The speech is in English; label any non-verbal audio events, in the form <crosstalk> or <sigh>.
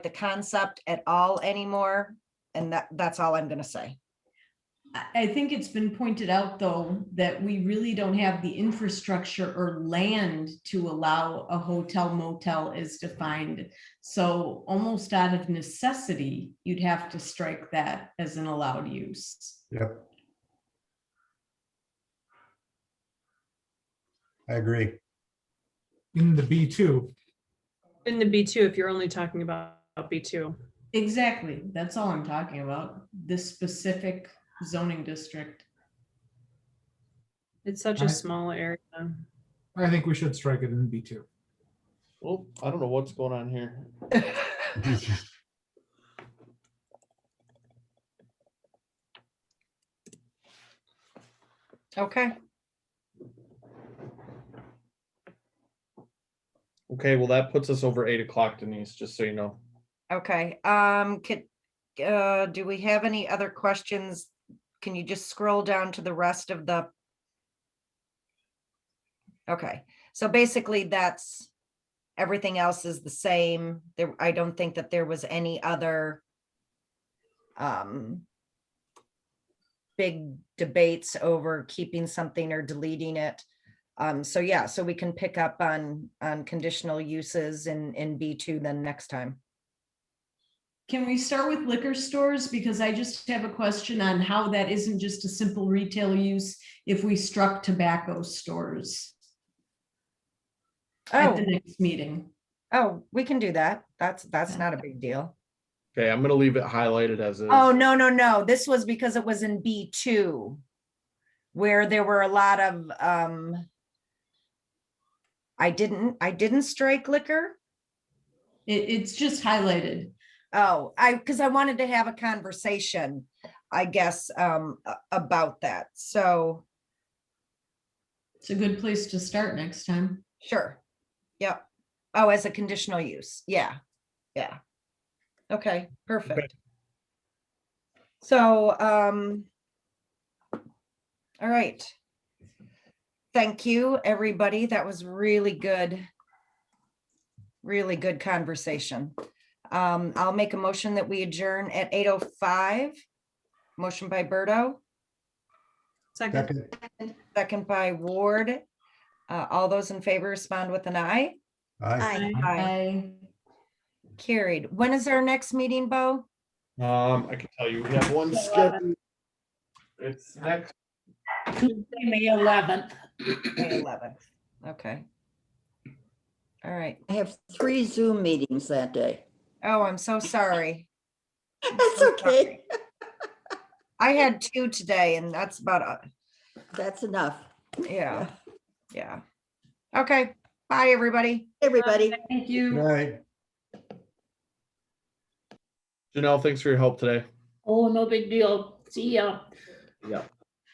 the concept at all anymore. And that, that's all I'm gonna say. I I think it's been pointed out, though, that we really don't have the infrastructure or land to allow a hotel motel as defined. So almost out of necessity, you'd have to strike that as an allowed use. I agree. in the B2. In the B2, if you're only talking about B2. Exactly. That's all I'm talking about, this specific zoning district. It's such a Right. small area. I think we should strike it in B2. Oh, I don't know what's going on here. Okay. Okay, well, that puts us over eight o'clock, Denise, just so you know. Okay, um, could, uh, do we have any other questions? Can you just scroll down to the rest of the? Okay, so basically that's, everything else is the same. There, I don't think that there was any other um, big debates over keeping something or deleting it. Um, so yeah, so we can pick up on, on conditional uses in, in B2 then next time. Can we start with liquor stores? Because I just have a question on how that isn't just a simple retail use if we struck tobacco stores at Oh, the next meeting. oh, we can do that. That's, that's Yeah. not a big deal. Okay, I'm gonna leave it highlighted as is. Oh, no, no, no. This was because it was in B two. Where there were a lot of, um. I didn't, I didn't strike liquor. It, it's just highlighted. Oh, I, because I wanted to have a conversation, I guess, um, a- about that. So, It's a good place to start next time. sure. Yep. Oh, as a conditional use. Yeah. Yeah. Okay, perfect. So, um, all right. Thank you, everybody. That was really good. Really good conversation. Um, I'll make a motion that we adjourn at eight oh five. Motion by Berto, Second, Second, second by Ward. Uh, all those in favor respond with an eye. aye. Aye. Aye. Bye. Carried. When is our next meeting, Bo? Um, I can tell you, we have one scheduled. It's next, Tuesday, May eleventh. May eleventh. Okay. All right. I have three Zoom meetings that day. Oh, I'm so <laughs> sorry. That's I'm okay. <laughs> sorry. I had two today and that's about, uh, That's enough. yeah, yeah. Okay, bye, everybody. Everybody. Thank you. Good night. Janelle, thanks for your help today. Oh, no big deal. See ya. Yeah.